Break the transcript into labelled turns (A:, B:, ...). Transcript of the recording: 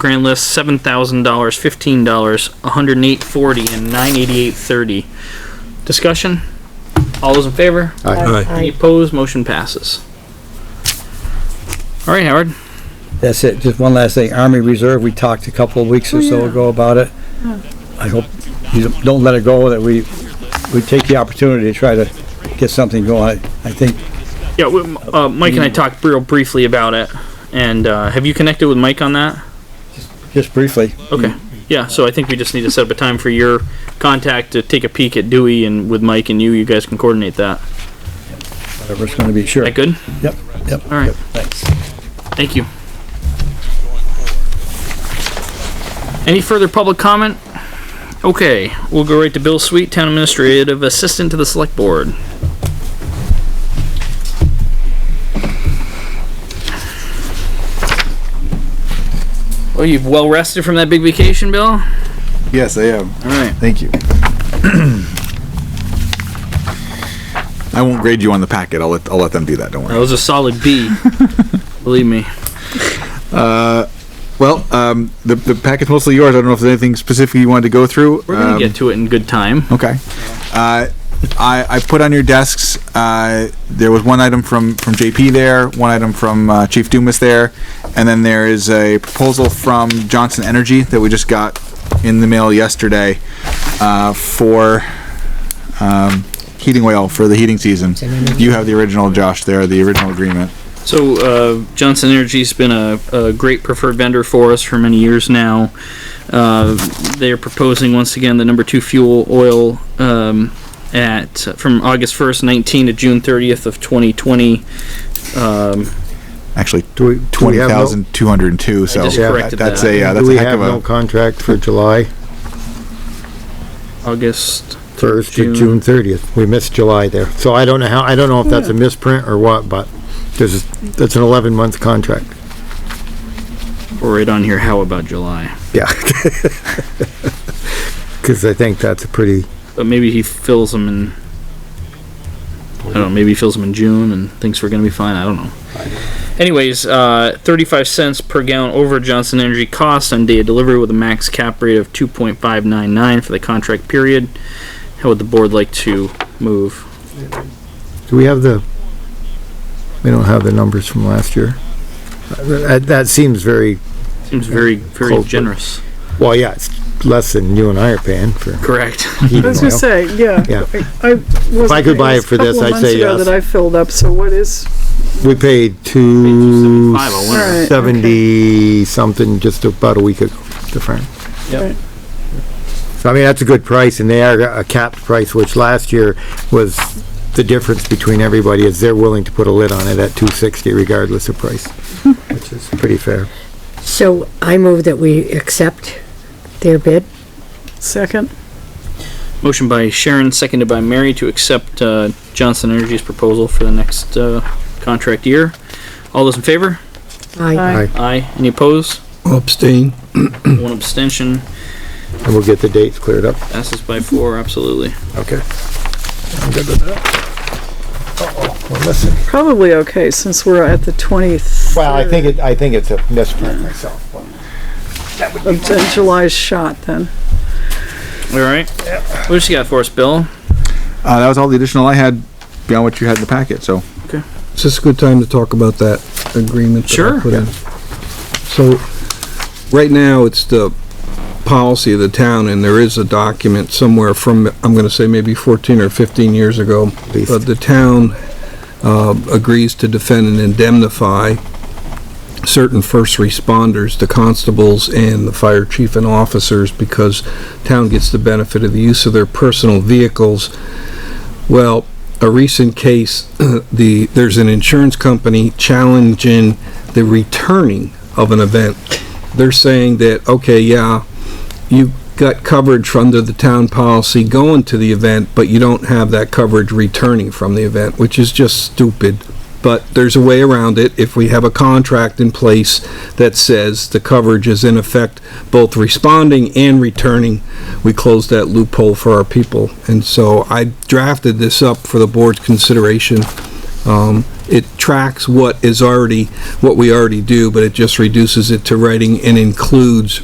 A: Grand list seven thousand dollars, fifteen dollars, one hundred and eight forty, and nine eighty eight thirty. Discussion. All those in favor?
B: Aye.
A: Any opposed? Motion passes. All right, Howard.
C: That's it. Just one last thing. Army Reserve, we talked a couple of weeks or so ago about it. I hope you don't- don't let it go, that we, we take the opportunity to try to get something going. I think,
A: Yeah, we, uh, Mike and I talked real briefly about it, and uh, have you connected with Mike on that?
C: just briefly,
A: Okay. Yeah, so I think we just need to set up a time for your contact to take a peek at Dewey and with Mike and you, you guys can coordinate that.
C: whatever it's gonna be, sure.
A: That good?
C: Yep, yep.
A: All right.
C: yep, Thanks.
A: Thank you. Any further public comment? Okay, we'll go right to Bill Sweet, Town Administrative Assistant to the Select Board. Well, you've well rested from that big vacation, Bill? All
D: Yes, I am.
A: right.
D: Thank you. I won't grade you on the packet. I'll let, I'll let them do that. Don't
A: That
D: worry.
A: was a solid B. Believe me.
D: Well, um, the, the packet's mostly yours. I don't know if there's anything specific you wanted to go through.
A: We're gonna
D: Um,
A: get to it in good time.
D: Okay. Uh, I, I put on your desks, uh, there was one item from, from JP there, one item from, uh, Chief Dumas there, and then there is a proposal from Johnson Energy that we just got in the mail yesterday, uh, for, um, heating oil for the heating season. You have the original, Josh, there, the original agreement.
A: So uh, Johnson Energy's been a, a great preferred vendor for us for many years now. Uh, they are proposing once again the number two fuel oil um, at from August 1st, 19 to June 30th of 2020. Um,
D: Actually,
E: Do we, do we
D: twenty
E: have no-
D: thousand two hundred and two,
E: Oh,
D: so.
A: just
D: that-
A: corrected
D: That's
A: that.
D: a, uh,
E: Do
D: that's a
E: we
D: heck
E: have
D: of
E: no
D: a,
E: contract for July
A: August
E: first to
A: June.
E: June thirtieth? We missed July there. So I don't know how, I don't know if that's a misprint or what, but there's, that's an eleven month contract.
A: or right on here. How about July?
E: Yeah. Cause I think that's a pretty,
A: But Uh, maybe he fills them in. I don't know. Maybe he fills them in June and thinks we're gonna be fine. I don't know. Anyways, uh, 35 cents per gallon over Johnson Energy cost on day of delivery with a max cap rate of 2.599 for the contract period. How would the board like to move?
E: do we have the, we don't have the numbers from last year. Uh, That, that seems very,
A: Seems very, very
E: Close, but-
A: generous.
E: well, yeah, it's less than you and I are paying for
A: Correct.
E: heating
F: I was gonna
E: oil.
F: say, yeah.
E: Yeah.
F: I was.
E: I could buy it for this, I'd say yes.
F: That I filled up, so what is,
E: We paid two
A: 275 a winter.
F: Alright,
E: seventy something just about a week ago, the firm.
A: Yep.
E: So I mean, that's a good price and they are a capped price, which last year was the difference between everybody is they're willing to put a lid on it at two sixty regardless of price, which is pretty fair.
G: So I move that we accept their bid.
F: second,
A: Motion by Sharon, seconded by Mary to accept uh, Johnson Energy's proposal for the next uh, contract year. All those in favor?
G: I
F: aye,
E: Aye.
A: Aye. Any opposed?
B: Abstain.
A: One abstention.
E: And we'll get the dates cleared up.
A: Passes by four, absolutely.
E: Okay. I'm good with that. Uh-oh, we're missing.
F: probably okay, since we're at the twentieth.
E: Well, I think it, I think it's a misprint myself. but-
F: Of of July's shot then.
A: All right. What else you got for us, Bill?
D: uh, that was all the additional I had beyond what you had in the packet, so.
B: Is this a good time to talk about that agreement? that I
A: Sure.
B: put in? So, right now, it's the policy of the town, and there is a document somewhere from, I'm gonna say maybe fourteen or fifteen years ago,
E: least.
B: but the town, uh, agrees to defend and indemnify certain first responders, the constables and the fire chief and officers, because town gets the benefit of the use of their personal vehicles. Well, a recent case, the, there's an insurance company challenging the returning of an event. They're saying that, okay, yeah, you got coverage under the town policy going to the event, but you don't have that coverage returning from the event, which is just stupid. But there's a way around it if we have a contract in place that says the coverage is in effect both responding and returning. We close that loophole for our people. And so I drafted this up for the board's consideration. Um, it tracks what is already, what we already do, but it just reduces it to writing and includes